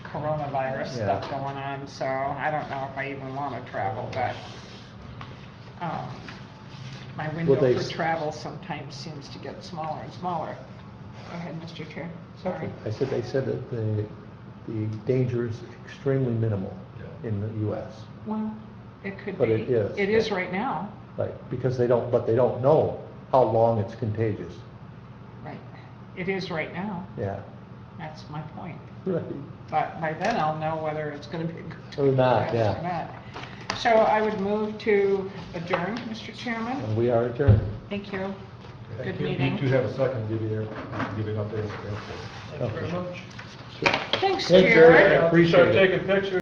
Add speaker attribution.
Speaker 1: coronavirus stuff
Speaker 2: Yeah.
Speaker 1: going on, so I don't know if I even wanna travel, but, um, my window
Speaker 2: they
Speaker 1: for
Speaker 2: s-
Speaker 1: travel sometimes seems to get smaller and smaller. Go ahead, Mr. Chair, sorry.
Speaker 2: I said, they said that the, the danger is extremely minimal
Speaker 3: Yeah.
Speaker 2: in the US.
Speaker 1: Well, it could be.
Speaker 2: But it is,
Speaker 1: It is
Speaker 2: yeah.
Speaker 1: right now,
Speaker 2: Like, because they don't, but they don't know how long it's contagious.
Speaker 1: right, it is right now,
Speaker 2: Yeah.
Speaker 1: that's my point.
Speaker 2: Right.
Speaker 1: But by then I'll know whether it's gonna be.
Speaker 2: Or
Speaker 1: Yes,
Speaker 2: not, yeah.
Speaker 1: or not. So I would move to adjourn, Mr. Chairman.
Speaker 2: And we are adjourned.
Speaker 1: Thank you. Good
Speaker 3: You-
Speaker 1: meeting.
Speaker 3: You do have a second, give you their, give it up there.
Speaker 2: Thank you very
Speaker 3: much.
Speaker 1: Thanks,
Speaker 2: Thanks, Eric.
Speaker 1: Jared.
Speaker 2: I appreciate it.
Speaker 3: taking pictures.